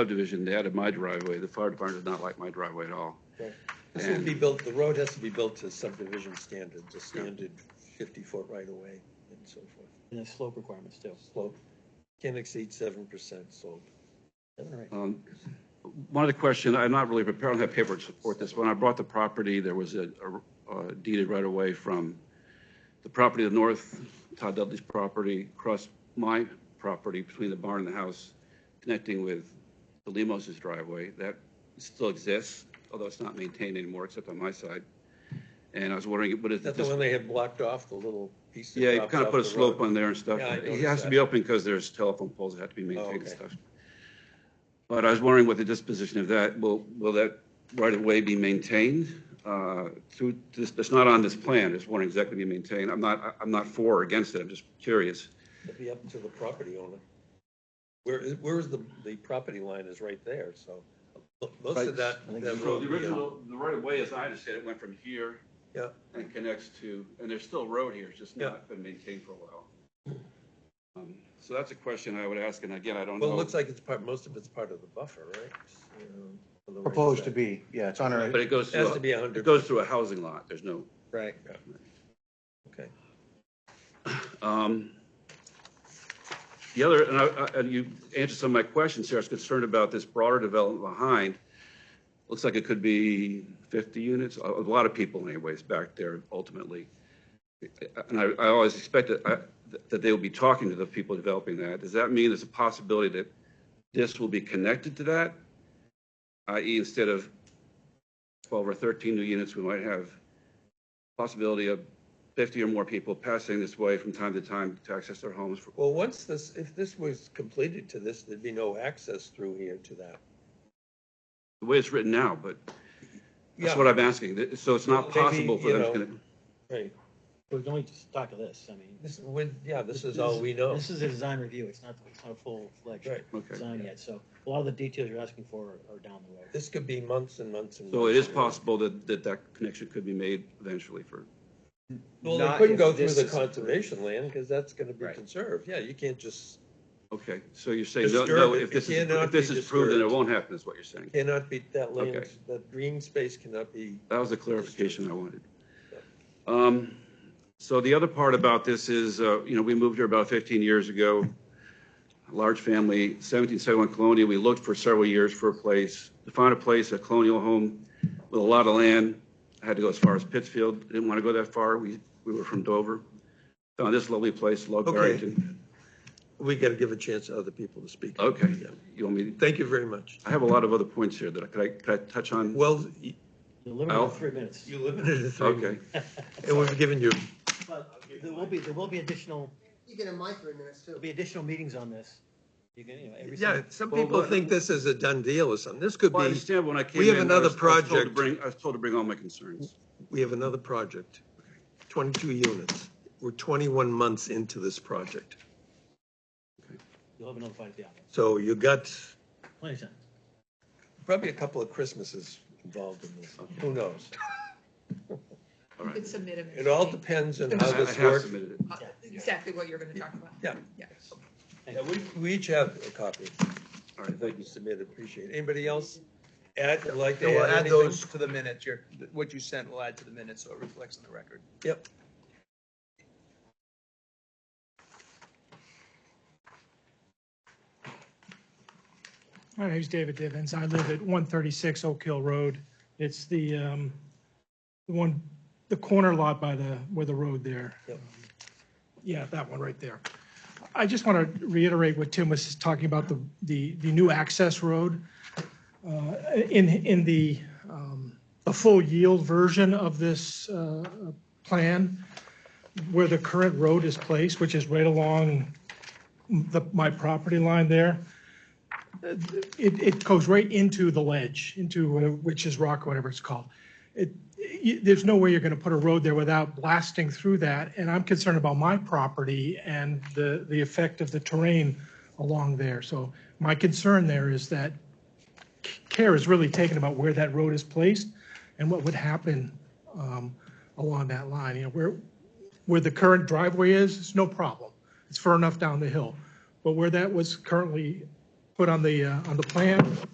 subdivision, they added my driveway. The fire department did not like my driveway at all. This will And- be built, the road has to be built to subdivision standards, a standard fifty-foot right-of-way and so forth. And the slope requirements too. Slope can exceed seven percent slope. Seven or eight. Um, One other question, I'm not really prepared, I don't have paper to support this. When I bought the property, there was a a, uh, deeded right away from the property to the north, Todd Dudley's property, across my property between the barn and the house, connecting with the Limos's driveway. That still exists, although it's not maintained anymore, except on my side. And I was wondering, what is Is that the this? one they had blocked off, the little piece? that Yeah, you drops kind of off put a the slope road? on there and stuff. Yeah, I It noticed has to that. be open because there's telephone poles that have to be maintained and okay. stuff. But I was wondering what the disposition of that, will, will that right of way be maintained? Uh, through, this, it's not on this plan, it's wondering exactly be maintained. I'm not, I- I'm not for or against it, I'm just curious. It'd be up to the property owner. Where, is- where is the, the property line is right there, so most Right. of that, think that it's- road. yeah. the right of way, as I understand it, went from here Yeah, and connects to, and there's still road here, it's just Yeah. not been maintained for a while. Um, So that's a question I would ask, and again, I don't know. well, it looks like it's part, most of it's part of the buffer, right? Um, on the right Proposed to side. be, yeah, it's on our, But it goes It has through, to be a a- it hundred, goes through a housing lot, there's no. right. okay. Um, The other, and I, I- and you answered some of my questions here, I was concerned about this broader development behind. Looks like it could be 50 units, a a lot of people anyways back there ultimately. And I, I always expected I- that they will be talking to the people developing that. Does that mean there's a possibility that this will be connected to that? I.e. instead of 12 or 13 new units, we might have possibility of 50 or more people passing this way from time to time to access their homes. for- Well, once this, if this was completed to this, there'd be no access through here to that. The way it's written now, but that's Yeah. what I'm asking. Th- So it's not Maybe, possible for you them to. know, connect- Right, We're going to talk of this, I mean. this, would- yeah, this is all we know. This is a design review, it's not, it's not a full-fledged Oh. Right, Okay. design yet, so a lot of the details you're asking for are down the road. this could be months and months and. So it months is and months. possible that, that that connection could be made eventually for, Well, they Not couldn't if go through this the is approved. conservation land, because that's gonna be Right. conserved, yeah, you can't just, okay. So you're saying, no, Disturb no, it. if this It is, cannot if this be is proved, then it disturbed. won't happen, is what you're saying. cannot be, that land, Okay. that green space cannot be, That was the clarification I wanted. Um, So the other part about this is, uh, you know, we moved here about 15 years ago, a large family, 1771 Colonial. We looked for several years for a place, to find a place, a colonial home with a lot of land. I Had to go as far as Pittsfield, didn't want to go that far. We, we were from Dover. Found this lovely place, Love Okay. Barrington. we gotta give a chance to other people to speak. Okay, Yeah. you want me, Thank you very much. I have a lot of other points here that I, could I, could I touch on? Well, y- You're limited Al? to three minutes. you limited it to three, Okay. minutes, and we've given you, But there will be, there will be additional, You get in my three minutes too. there'll be additional meetings on this. You can, you know, every. yeah, single- some Well, people what- think this is a done deal or something, this could Well, I be, understand when I came in. we have I another was- I was told to project. bring- I was told to bring all my concerns. we have another project, twenty-two units, we're twenty-one months into this project. You'll have another fight at the office. So you got Plenty of time. probably a couple of Christmases involved in this. Who knows? All right. could submit a. It all depends on I how I this have works. submitted it. Uh, Exactly what you're gonna talk about. Yeah. Yeah. Yeah, we, we each have a copy. All right, Thank you, submitted, appreciate it. Anybody else add, like to We'll add add anything? those to the minutes, your, what you sent will add to the minutes, so it reflects on the record. Yep. My name's David Divins. I live at 136 Oak Hill Road. It's the um, the one, the corner lot by the, where the road there. Yep. Yeah, that one right there. I just want to reiterate what Tim was talking about, the, the the new access road. Uh, In, in the, um, the full yield version of this uh, plan, where the current road is placed, which is right along the, my property line there, it, it goes right into the ledge, into whatever- Witch's Rock, whatever it's called. It, you, there's no way you're gonna put a road there without blasting through that, and I'm concerned about my property and the, the effect of the terrain along there. So my concern there is that care is really taken about where that road is placed and what would happen, um, along that line, you know, where, where the current driveway is, it's no problem. It's far enough down the hill. But where that was currently put on the, uh, on the plan.